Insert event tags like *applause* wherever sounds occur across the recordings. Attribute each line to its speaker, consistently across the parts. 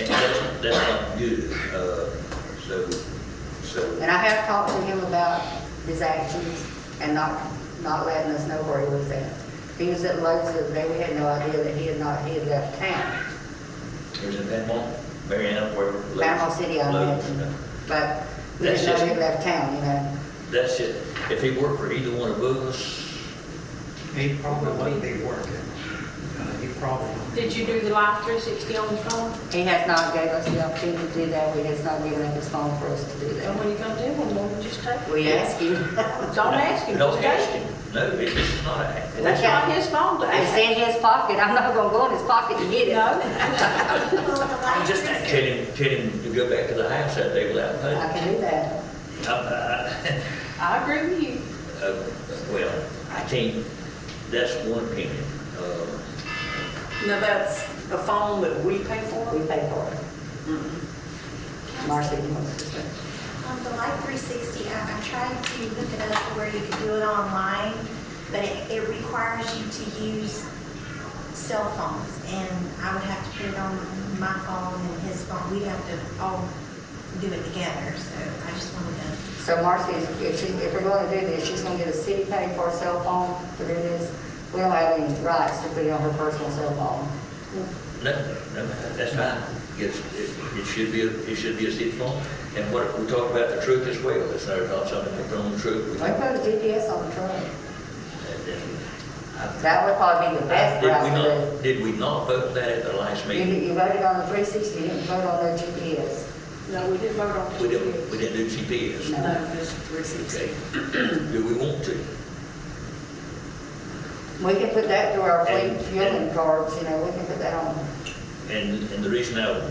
Speaker 1: that's not good, uh, so, so,
Speaker 2: And I have talked to him about his actions and not, not letting us know where he was at. He was at Lowe's the other day, we had no idea that he had not, he had left town,
Speaker 1: there's a Bama, Mariana, wherever.
Speaker 2: Panama City, I
Speaker 1: Lowe's,
Speaker 2: imagine. But we
Speaker 1: That's
Speaker 2: didn't know he
Speaker 1: just-
Speaker 2: left town, you know.
Speaker 1: That's it, if he worked for either one of us,
Speaker 3: He probably wouldn't be working. Uh, He probably,
Speaker 4: Did you do the Life 360 on the phone?
Speaker 2: He has not gave us the opportunity to do that, he has not given up his phone for us to do
Speaker 4: And
Speaker 2: that.
Speaker 4: when you come to him, we'll just take it.
Speaker 2: We ask him,
Speaker 4: Don't ask him,
Speaker 1: Don't
Speaker 4: just
Speaker 1: ask
Speaker 4: take
Speaker 1: him.
Speaker 4: it.
Speaker 1: No, it- it's not an act.
Speaker 4: That's not his phone to
Speaker 2: *laughs* it's
Speaker 4: ask.
Speaker 2: in his pocket, I'm not gonna go in his pocket to get it. *laughs*
Speaker 4: No.
Speaker 1: Just tell him, tell him to go back to the house that day without
Speaker 2: I
Speaker 1: paying.
Speaker 2: can do that.
Speaker 1: I'm- I-
Speaker 4: I agree with you.
Speaker 1: Uh, *laughs* Well, I can't, that's one opinion. Uh,
Speaker 4: Now, that's the phone that we pay
Speaker 2: We
Speaker 4: for?
Speaker 2: pay for it. Marcy wants to say.
Speaker 5: Um, the Life 360 app, I tried to look it up to where you could do it online, but it, it requires you to use cell phones, and I would have to put it on my phone and his phone. We'd have to all do it together, so I just wanted to,
Speaker 2: So Marcy, is- if she, if we're gonna do this, she's gonna get a city paid for a cell phone to do this. We don't have any rights to put it on her personal cell phone.
Speaker 1: No, no, that's fine. It's, it it should be, a- it should be a city phone. And what, we talked about the truck as well, it's not, not something that's on the truck.
Speaker 2: We
Speaker 1: We-
Speaker 2: put a GPS on the truck.
Speaker 1: and- and I-
Speaker 2: That would probably be the best
Speaker 1: Did we
Speaker 2: route to
Speaker 1: not, did we not vote that at the last
Speaker 2: do. You,
Speaker 1: meeting?
Speaker 2: you voted on the three sixty, you didn't vote on the GPS.
Speaker 4: No, we didn't vote on it.
Speaker 1: We didn't, we didn't do GPS.
Speaker 2: No.
Speaker 4: No, just 360.
Speaker 1: Okay. Do we want to?
Speaker 2: We can put that through our fleet
Speaker 1: And-
Speaker 2: fueling
Speaker 1: and-
Speaker 2: cards, you know, we can put that on.
Speaker 1: And, and the reason I,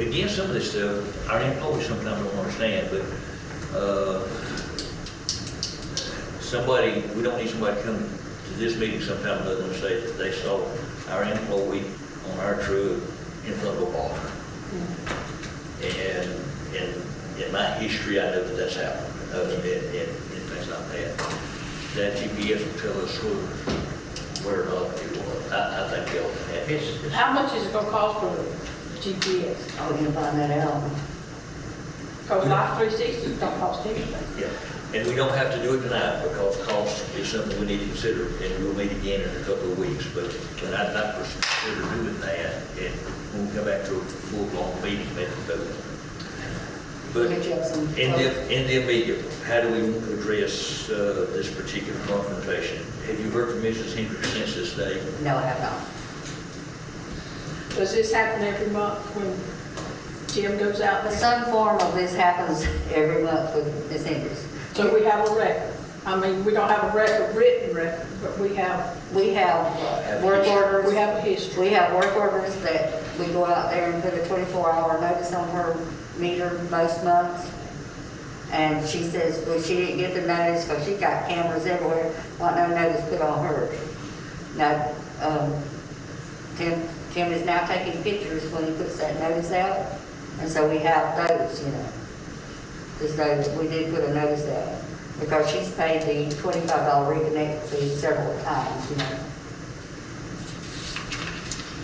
Speaker 1: again, some of this stuff, our employees sometimes don't understand, but, uh, somebody, we don't need somebody to come to this meeting sometime other than say that they saw our employee on our truck in front of a bar. And, and in my history, I know that that's happened, other than, and, and things like that. That GPS will tell us who, where or not it was. I, I think they'll, it's, it's.
Speaker 4: How much is it gonna cost for GPS?
Speaker 2: Oh, we can find that out.
Speaker 4: Because Life 360 don't cost anything.
Speaker 1: Yeah, and we don't have to do it tonight because cost is something we need to consider, and we'll meet again in a couple of weeks, but, but I'd like to consider doing that, and when we come back to a full-blown meeting, maybe we'll do it. But
Speaker 2: Get you up some
Speaker 1: in
Speaker 2: quotes.
Speaker 1: the, in the immediate, how do we want to address uh, this particular confrontation? Have you heard from Mrs. Hendricks since this day?
Speaker 2: No, I have not.
Speaker 4: Does this happen every month when Jim goes out there?
Speaker 2: Some form of this happens every month with Ms. Hendricks.
Speaker 4: So we have a record. I mean, we don't have a record, written record, but we have,
Speaker 2: We have work orders.
Speaker 4: we have a history.
Speaker 2: We have work orders that we go out there and put a 24-hour notice on her meter most months. And she says, well, she didn't get the notice because she got cameras everywhere, want no notice put on her. Now, um, Tim, Tim is now taking pictures when he puts that notice out, and so we have those, you know. Just those, we did put a notice out, because she's paid the $25 reconnect fee several times, you know.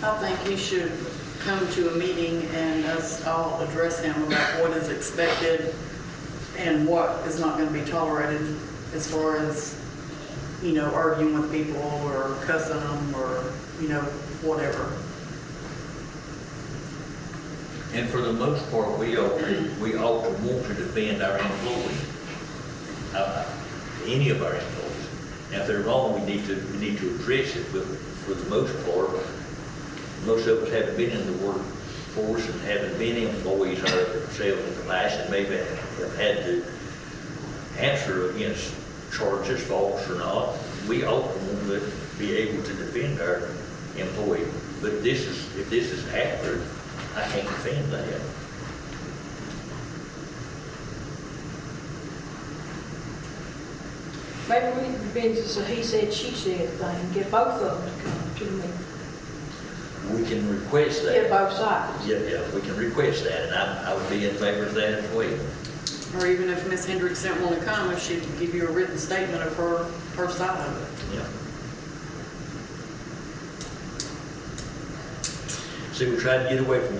Speaker 6: I think you should come to a meeting and us all address him about what is expected and what is not going to be tolerated as far as, you know, arguing with people or cussing them or, you know, whatever.
Speaker 1: And for the most part, we ought, to- we ought to want to defend our employees, uh, any of our employees. Now, if they're wrong, we need to, we need to address it, but for the most part, most of us haven't been in the workforce and haven't been employees ourselves in the past, and maybe have had to answer against charges, false or not. We ought to want to be able to defend our employee, but this is, if this is accurate, I can't defend that.
Speaker 4: Maybe we can bend this, a he said, she said thing, get both of them to come to me,
Speaker 1: We can request
Speaker 4: get
Speaker 1: that.
Speaker 4: both sides.
Speaker 1: Yeah, yeah, we can request that, and I, I would be in favor of that as well.
Speaker 6: Or even if Ms. Hendricks didn't want to come, if she'd give you a written statement of her, her side of it.
Speaker 1: Yeah. See, we tried to get away from